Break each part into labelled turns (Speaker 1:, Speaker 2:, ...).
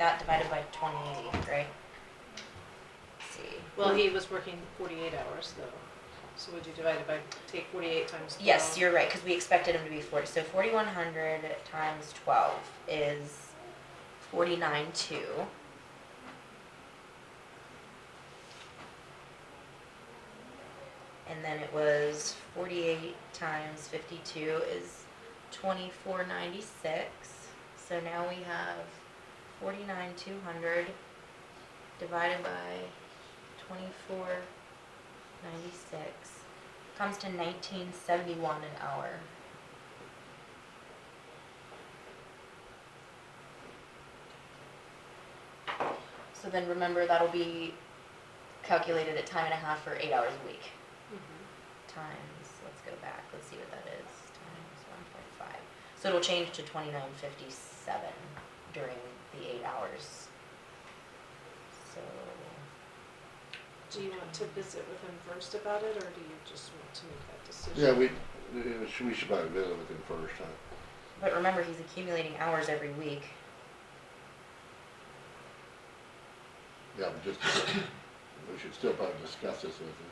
Speaker 1: that divided by twenty, right? Let's see.
Speaker 2: Well, he was working forty-eight hours though, so would you divide it by, take forty-eight times twelve?
Speaker 1: Yes, you're right, because we expected him to be forty, so forty-one hundred times twelve is forty-nine two. And then it was forty-eight times fifty-two is twenty-four ninety-six, so now we have forty-nine two hundred divided by twenty-four ninety-six comes to nineteen seventy-one an hour. So then remember, that'll be calculated at time and a half for eight hours a week.
Speaker 2: Mhm.
Speaker 1: Times, let's go back, let's see what that is, times one point five. So it'll change to twenty-nine fifty-seven during the eight hours. So,
Speaker 2: Do you want to visit with him first about it, or do you just want to make that decision?
Speaker 3: Yeah, we, we should we should probably visit with him first, huh?
Speaker 1: but remember, he's accumulating hours every week.
Speaker 3: Yeah, but just, we should still probably discuss this with him.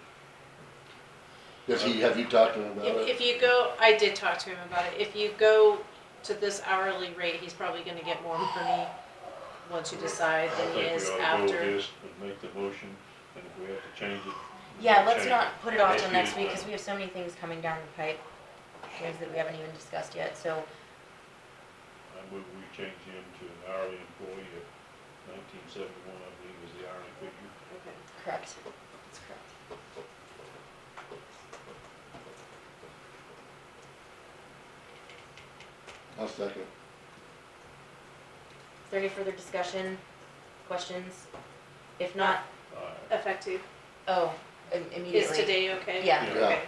Speaker 3: Does he, have you talked to him about
Speaker 2: If,
Speaker 3: it?
Speaker 2: if you go, I did talk to him about it, if you go to this hourly rate, he's probably gonna get more money once you decide
Speaker 4: I
Speaker 2: than he
Speaker 4: think
Speaker 2: is
Speaker 4: we ought to go with
Speaker 2: after.
Speaker 4: this and make the motion, and if we have to change it. we
Speaker 1: Yeah,
Speaker 4: can
Speaker 1: let's
Speaker 4: change
Speaker 1: not put it off till
Speaker 4: Maybe
Speaker 1: next
Speaker 4: it's
Speaker 1: week,
Speaker 4: fine.
Speaker 1: cause we have so many things coming down the pipe, things that we haven't even discussed yet, so,
Speaker 4: it. I move we change him to an hourly employee of nineteen seventy-one, I believe is the hourly figure.
Speaker 2: Okay.
Speaker 1: correct. That's correct.
Speaker 3: I'll second.
Speaker 1: Is there any further discussion, questions? If not,
Speaker 4: Aye.
Speaker 2: Effective,
Speaker 1: oh, im-
Speaker 2: is
Speaker 1: immediately.
Speaker 2: today okay?
Speaker 1: Yeah.
Speaker 4: Yeah.
Speaker 2: Okay.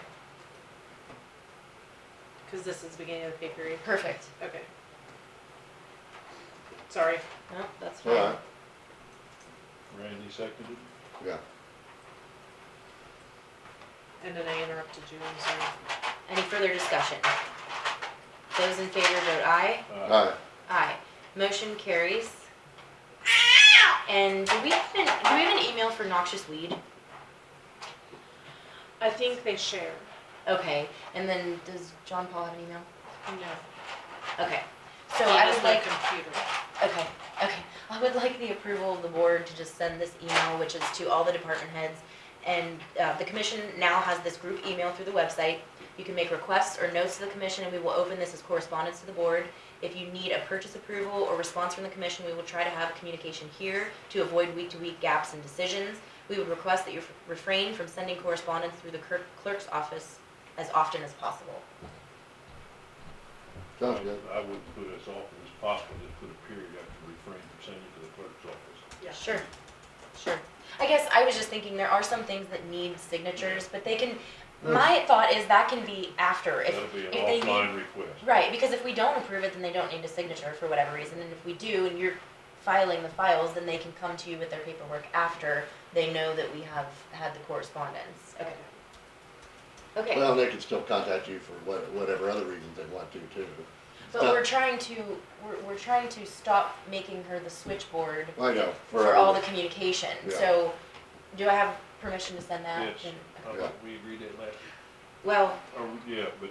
Speaker 2: Cause this is the beginning of the pay period,
Speaker 1: Perfect.
Speaker 2: okay. Sorry.
Speaker 1: No, that's
Speaker 3: All
Speaker 1: fine.
Speaker 3: right,
Speaker 4: Randy seconded,
Speaker 3: yeah.
Speaker 2: And then I interrupted you, I'm sorry.
Speaker 1: Any further discussion? Those in favor vote aye.
Speaker 3: All
Speaker 4: aye.
Speaker 3: right,
Speaker 1: Aye. Motion carries. And do we have an, do we have an email for noxious weed?
Speaker 2: I think they share.
Speaker 1: Okay, and then does John Paul have an email?
Speaker 2: No.
Speaker 1: Okay, so I would like.
Speaker 2: computer.
Speaker 1: Okay, okay. I would like the approval of the board to just send this email, which is to all the department heads. And, uh, the commission now has this group email through the website. You can make requests or notes to the commission and we will open this as correspondence to the board. If you need a purchase approval or response from the commission, we will try to have communication here to avoid week-to-week gaps in decisions. We would request that you refrain from sending correspondence through the clerk- clerk's office as often as possible.
Speaker 3: sounds good.
Speaker 4: I I would put as often as possible, just put a period after refrain from sending it to the clerk's office.
Speaker 2: Yeah.
Speaker 1: Sure, sure. I guess I was just thinking there are some things that need signatures, but they can, my thought is that can be after if,
Speaker 4: That'll be an
Speaker 1: if they need.
Speaker 4: offline request.
Speaker 1: Right, because if we don't approve it, then they don't need a signature for whatever reason, and if we do and you're filing the files, then they can come to you with their paperwork after they know that we have had the correspondence. Okay, okay,
Speaker 3: Well, they can still contact you for what, whatever other reasons they want to too.
Speaker 1: but
Speaker 4: uh,
Speaker 1: we're trying to, we're, we're trying to stop making her the switchboard
Speaker 3: I know.
Speaker 1: for all the communication,
Speaker 3: Yeah.
Speaker 1: so, do I have permission to send that?
Speaker 4: Yes,
Speaker 1: And-
Speaker 4: I
Speaker 3: Yeah.
Speaker 4: thought we agreed that last,
Speaker 1: Well,
Speaker 4: or, yeah, but.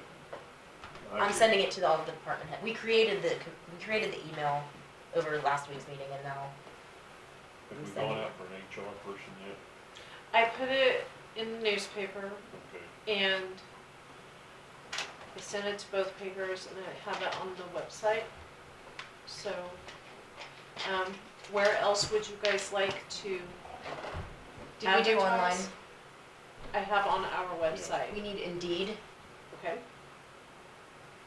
Speaker 4: I
Speaker 1: I'm
Speaker 4: should-
Speaker 1: sending it to all of the department head. We created the, we created the email over last week's meeting and now,
Speaker 4: Have
Speaker 1: I'm
Speaker 4: we
Speaker 1: sending
Speaker 4: gone
Speaker 1: it.
Speaker 4: out for an HR person yet?
Speaker 2: I put it in the newspaper
Speaker 4: Okay.
Speaker 2: and I sent it to both papers and I have it on the website. So, um, where else would you guys like to
Speaker 1: did we do online?
Speaker 2: advertise? I have on our
Speaker 1: We
Speaker 2: website,
Speaker 1: need Indeed.
Speaker 2: okay?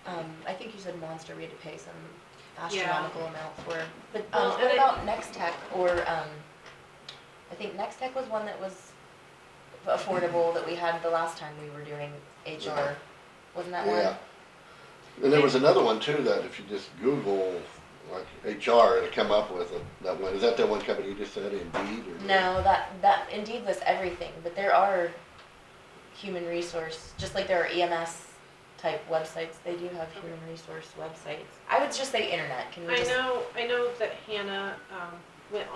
Speaker 1: Um, I think you said Monster, we had to pay some astronomical amount for, but, um,
Speaker 2: Well, and
Speaker 1: what
Speaker 2: I-
Speaker 1: about Next Tech or, um, I think Next Tech was one that was affordable that we had the last time we were doing HR. Wasn't that one?
Speaker 3: Yeah. And there was another one too, that if you just Google, like HR, it'll come up with it, that one, is that that one company you just said, Indeed or?
Speaker 1: No, that, that Indeed lists everything, but there are human resource, just like there are EMS type websites, they do have human resource websites. I would just say internet, can we
Speaker 2: I
Speaker 1: just,
Speaker 2: know, I know that Hannah, um,